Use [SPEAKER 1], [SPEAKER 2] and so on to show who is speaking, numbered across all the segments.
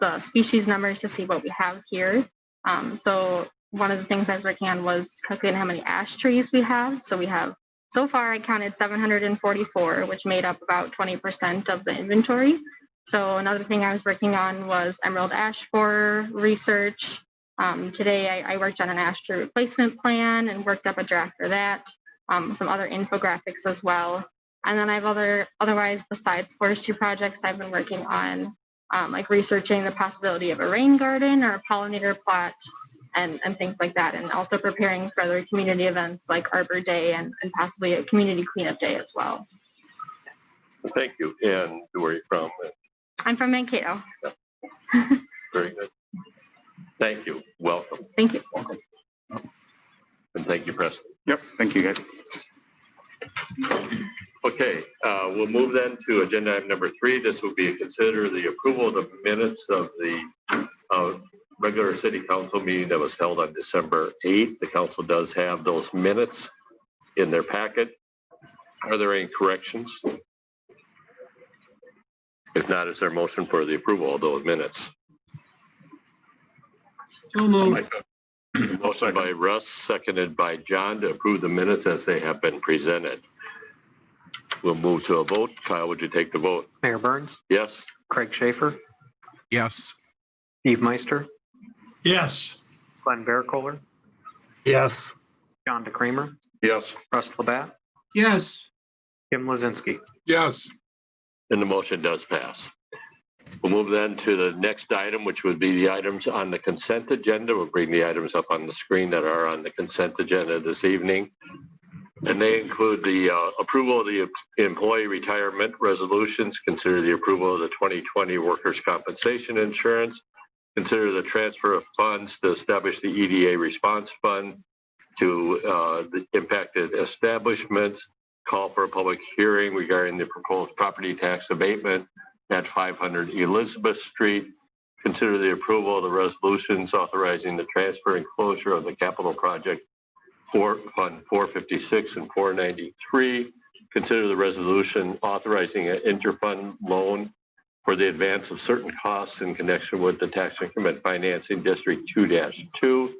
[SPEAKER 1] the species numbers to see what we have here. Um, so one of the things I was working on was calculating how many ash trees we have. So we have, so far I counted 744, which made up about 20% of the inventory. So another thing I was working on was emerald ash borer research. Um, today I, I worked on an ash tree replacement plan and worked up a draft for that. Um, some other infographics as well. And then I've other otherwise besides forestry projects, I've been working on um, like researching the possibility of a rain garden or a pollinator plot and, and things like that, and also preparing for other community events like Arbor Day and, and possibly a community cleanup day as well.
[SPEAKER 2] Thank you. And where are you from?
[SPEAKER 1] I'm from Mankato.
[SPEAKER 2] Very good. Thank you. Welcome.
[SPEAKER 1] Thank you.
[SPEAKER 2] And thank you, Preston.
[SPEAKER 3] Yep, thank you guys.
[SPEAKER 2] Okay, uh, we'll move then to agenda item number three. This will be consider the approval of the minutes of the uh, regular city council meeting that was held on December 8th. The council does have those minutes in their packet. Are there any corrections? If not, is there a motion for the approval of those minutes?
[SPEAKER 4] So moved.
[SPEAKER 2] Motion by Russ, seconded by John to approve the minutes as they have been presented. We'll move to a vote. Kyle, would you take the vote?
[SPEAKER 5] Mayor Burns,
[SPEAKER 2] Yes?
[SPEAKER 5] Craig Schaefer,
[SPEAKER 4] Yes.
[SPEAKER 5] Steve Meister,
[SPEAKER 4] Yes.
[SPEAKER 5] Glenn Baricola,
[SPEAKER 4] Yes.
[SPEAKER 5] John DeCramer,
[SPEAKER 2] Yes.
[SPEAKER 5] Russ Labatt,
[SPEAKER 4] Yes.
[SPEAKER 5] Jim Lozinski.
[SPEAKER 4] Yes.
[SPEAKER 2] And the motion does pass. We'll move then to the next item, which would be the items on the consent agenda. We'll bring the items up on the screen that are on the consent agenda this evening. And they include the uh, approval of the employee retirement resolutions, consider the approval of the 2020 workers' compensation insurance, consider the transfer of funds to establish the EDA response fund to uh, the impacted establishments, call for a public hearing regarding the proposed property tax abatement at 500 Elizabeth Street. Consider the approval of the resolutions authorizing the transfer and closure of the capital project for Fund 456 and 493. Consider the resolution authorizing an interfund loan for the advance of certain costs in connection with the tax increment financing District 2-2.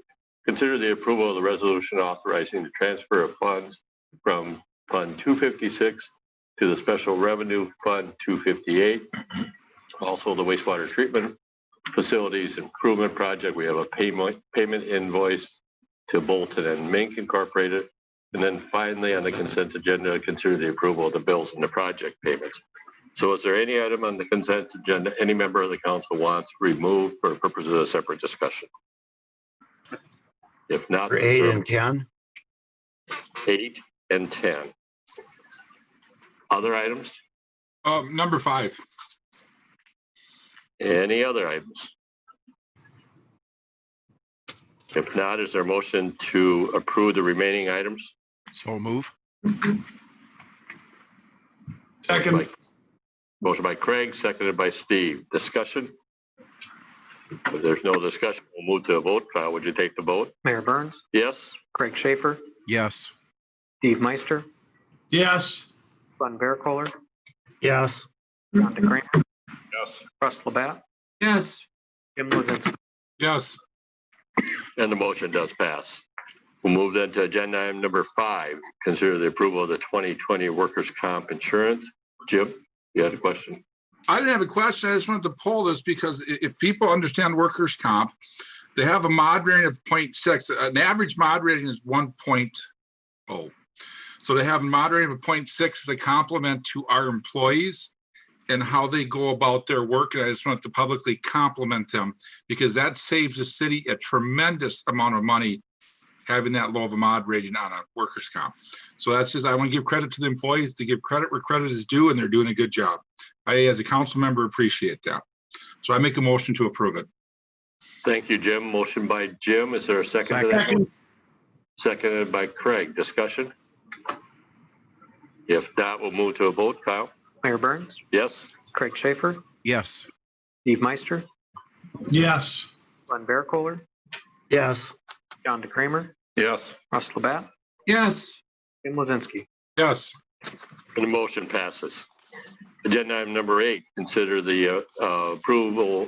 [SPEAKER 2] Consider the approval of the resolution authorizing the transfer of funds from Fund 256 to the Special Revenue Fund 258. Also, the wastewater treatment facilities improvement project, we have a payment, payment invoice to Bolton and Mink Incorporated. And then finally, on the consent agenda, consider the approval of the bills and the project payments. So is there any item on the consent agenda any member of the council wants removed for purposes of a separate discussion? If not.
[SPEAKER 6] For eight and ten?
[SPEAKER 2] Eight and 10. Other items?
[SPEAKER 7] Um, number five.
[SPEAKER 2] Any other items? If not, is there a motion to approve the remaining items?
[SPEAKER 7] So move.
[SPEAKER 2] By- Motion by Craig, seconded by Steve. Discussion? If there's no discussion, we'll move to a vote. Kyle, would you take the vote?
[SPEAKER 5] Mayor Burns,
[SPEAKER 2] Yes?
[SPEAKER 5] Craig Schaefer,
[SPEAKER 7] Yes.
[SPEAKER 5] Steve Meister,
[SPEAKER 4] Yes.
[SPEAKER 5] Glenn Baricola,
[SPEAKER 6] Yes.
[SPEAKER 5] John DeCramer,
[SPEAKER 2] Yes.
[SPEAKER 5] Russ Labatt,
[SPEAKER 4] Yes.
[SPEAKER 5] Jim Lozinski.
[SPEAKER 7] Yes.
[SPEAKER 2] And the motion does pass. We'll move then to agenda item number five. Consider the approval of the 2020 workers' comp insurance. Jim, you had a question?
[SPEAKER 7] I didn't have a question. I just wanted to poll this because i- if people understand workers' comp, they have a mod rating of 0.6. An average mod rating is 1.0. So they have a mod rating of 0.6 as a compliment to our employees and how they go about their work. And I just want to publicly compliment them because that saves the city a tremendous amount of money having that low of a mod rating on a workers' comp. So that's just, I want to give credit to the employees to give credit where credit is due, and they're doing a good job. I, as a council member, appreciate that. So I make a motion to approve it.
[SPEAKER 2] Thank you, Jim. Motion by Jim. Is there a second to that? Seconded by Craig. Discussion? If not, we'll move to a vote. Kyle?
[SPEAKER 5] Mayor Burns,
[SPEAKER 2] Yes?
[SPEAKER 5] Craig Schaefer,
[SPEAKER 7] Yes.
[SPEAKER 5] Steve Meister,
[SPEAKER 4] Yes.
[SPEAKER 5] Glenn Baricola,
[SPEAKER 6] Yes.
[SPEAKER 5] John DeCramer,
[SPEAKER 2] Yes.
[SPEAKER 5] Russ Labatt,
[SPEAKER 4] Yes.
[SPEAKER 5] Jim Lozinski.
[SPEAKER 7] Yes.
[SPEAKER 2] And the motion passes. Agenda item number eight, consider the uh, uh, approval